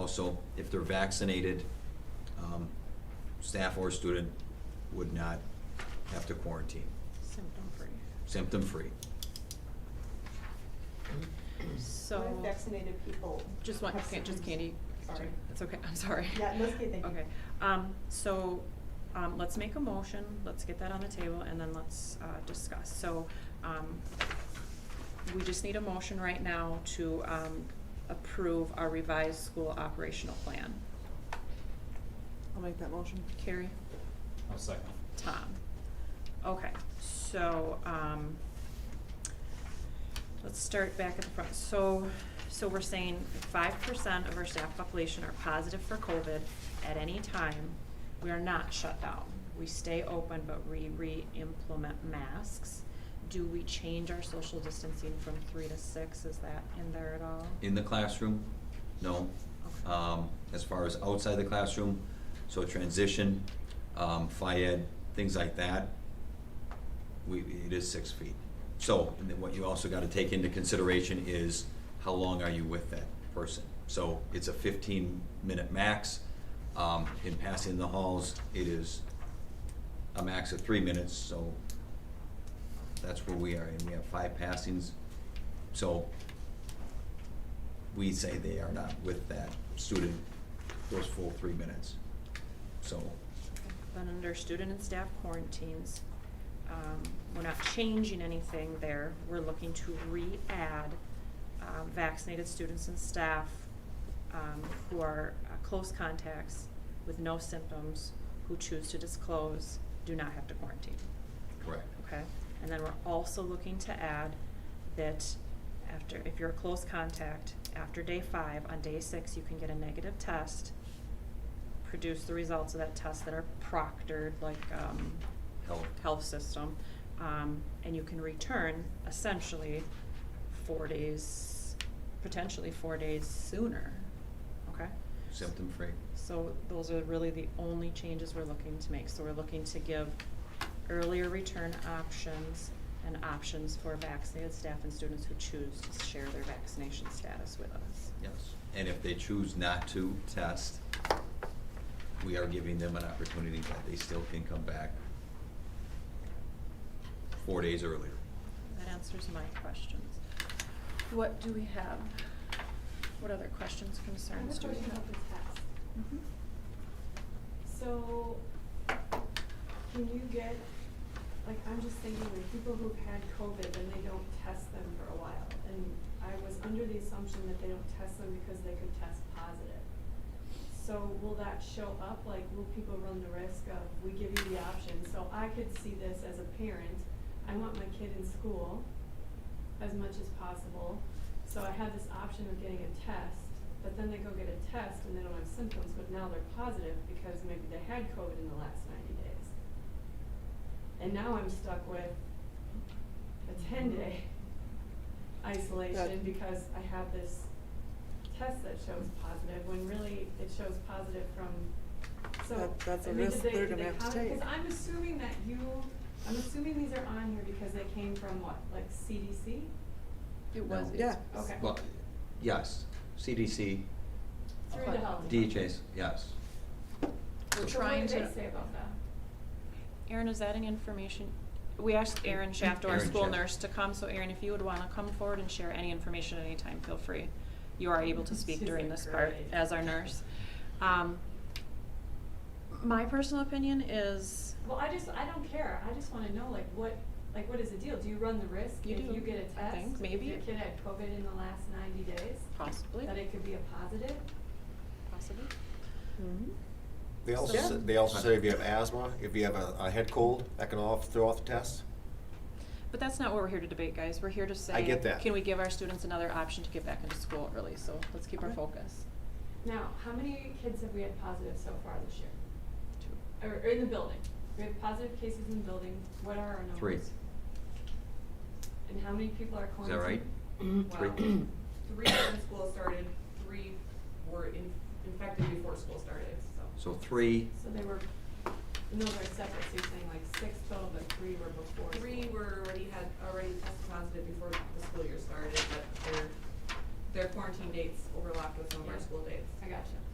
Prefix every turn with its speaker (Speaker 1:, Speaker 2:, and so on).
Speaker 1: also, if they're vaccinated, um, staff or student would not have to quarantine,
Speaker 2: Symptom-free.
Speaker 1: symptom-free.
Speaker 2: So.
Speaker 3: What if vaccinated people?
Speaker 2: Just one,
Speaker 3: have
Speaker 2: can just
Speaker 3: symptoms?
Speaker 2: Candy.
Speaker 3: Sorry.
Speaker 2: That's okay, I'm sorry.
Speaker 3: Yeah, let's get that.
Speaker 2: Okay, um, so, um, let's make a motion, let's get that on the table, and then let's, uh, discuss. So, um, we just need a motion right now to, um, approve our revised school operational plan.
Speaker 4: I'll make that motion.
Speaker 2: Carrie?
Speaker 5: I'll second.
Speaker 2: Tom. Okay, so, um, let's start back at the front. So, so we're saying five percent of our staff population are positive for COVID at any time. We are not shut down. We stay open, but we re-implement masks. Do we change our social distancing from three to six? Is that in there at all?
Speaker 1: In the classroom, no.
Speaker 2: Okay.
Speaker 1: Um, as far as outside the classroom, so transition, um, FIED, things like that, we, it is six feet. So, and then what you also gotta take into consideration is how long are you with that person? So it's a fifteen minute max, um, in passing the halls, it is a max of three minutes, so that's where we are, and we have five passings. So we say they are not with that student those full three minutes. So,
Speaker 2: Then under student and staff quarantines, um, we're not changing anything there. We're looking to re-add um, vaccinated students and staff um, who are uh, close contacts with no symptoms, who choose to disclose, do not have to quarantine.
Speaker 1: correct.
Speaker 2: Okay, and then we're also looking to add that after, if you're a close contact, after day five, on day six, you can get a negative test, produce the results of that test that are proctored, like, um,
Speaker 1: Health.
Speaker 2: health system, um, and you can return essentially four days, potentially four days sooner, okay?
Speaker 1: Symptom-free.
Speaker 2: So those are really the only changes we're looking to make. So we're looking to give earlier return options and options for vaccinated staff and students who choose to share their vaccination status with us.
Speaker 1: Yes. And if they choose not to test, we are giving them an opportunity that they still can come back four days earlier.
Speaker 2: That answers my questions. What do we have? What other questions,
Speaker 3: I have
Speaker 2: concerns
Speaker 3: a
Speaker 2: do we
Speaker 3: question
Speaker 2: have?
Speaker 3: about the test.
Speaker 2: Mhm.
Speaker 3: So, can you get, like, I'm just thinking, like, people who've had COVID and they don't test them for a while, and I was under the assumption that they don't test them because they could test positive. So will that show up, like, will people run the risk of, we give you the option, so I could see this as a parent, I want my kid in school as much as possible, so I have this option of getting a test, but then they go get a test and they don't have symptoms, but now they're positive because maybe they had COVID in the last ninety days. And now I'm stuck with a ten day isolation
Speaker 4: Mm-hmm. That-
Speaker 3: because I have this test that shows positive, when really it shows positive from, so.
Speaker 4: That- that's
Speaker 3: I
Speaker 4: a
Speaker 3: mean, did
Speaker 4: risk
Speaker 3: they-
Speaker 4: they're
Speaker 3: did
Speaker 4: gonna
Speaker 3: they
Speaker 4: have to
Speaker 3: comment?
Speaker 4: take.
Speaker 3: Cause I'm assuming that you, I'm assuming these are on here because they came from what, like CDC?
Speaker 2: It
Speaker 1: was- No.
Speaker 4: Yeah.
Speaker 3: Okay.
Speaker 1: Well, yes, CDC,
Speaker 3: Through the health.
Speaker 1: DHS, yes.
Speaker 2: We're
Speaker 3: So what
Speaker 2: trying
Speaker 3: did
Speaker 2: to.
Speaker 3: they say about that?
Speaker 2: Erin, is that any information? We asked Erin Shaft, our
Speaker 1: Erin
Speaker 2: school
Speaker 1: Shaft.
Speaker 2: nurse, to come, so Erin, if you would wanna come forward and share any information at any time, feel free. You are able to speak
Speaker 3: She's
Speaker 2: during
Speaker 3: like,
Speaker 2: this part
Speaker 3: "Great."
Speaker 2: as our nurse. Um, my personal opinion is,
Speaker 3: Well, I just, I don't care, I just wanna know, like, what, like, what is the deal? Do you run the risk
Speaker 2: You
Speaker 3: if
Speaker 2: do,
Speaker 3: you get a
Speaker 2: I think,
Speaker 3: test, if
Speaker 2: maybe.
Speaker 3: your kid had COVID in the last ninety days?
Speaker 2: Possibly.
Speaker 3: That it could be a positive?
Speaker 2: possibly,
Speaker 4: Mhm.
Speaker 6: They also,
Speaker 4: Yeah.
Speaker 6: sa- they also say if you have asthma, if you have a, a head cold, that can all throw off the test.
Speaker 2: but that's not what we're here to debate, guys. We're here to say.
Speaker 6: I get that.
Speaker 2: Can we give our students another option to get back into school early, so let's keep our
Speaker 4: Okay.
Speaker 2: focus.
Speaker 3: Now, how many kids have we had positive so far this year? Or, or in the building? We have positive cases in the building, what are our numbers?
Speaker 1: Three.
Speaker 3: And how many people are
Speaker 1: Is that
Speaker 3: quarantined?
Speaker 1: right?
Speaker 7: Well,
Speaker 1: Three.
Speaker 7: three when school started, three were in- infected before school started, so.
Speaker 1: So three,
Speaker 3: So they were, no, they're separate, so you're saying like six total, but three were before.
Speaker 7: Three were already had, already tested positive before the school year started, but they're their quarantine dates overlapped with some of our
Speaker 3: Yeah.
Speaker 7: school dates.
Speaker 3: I gotcha.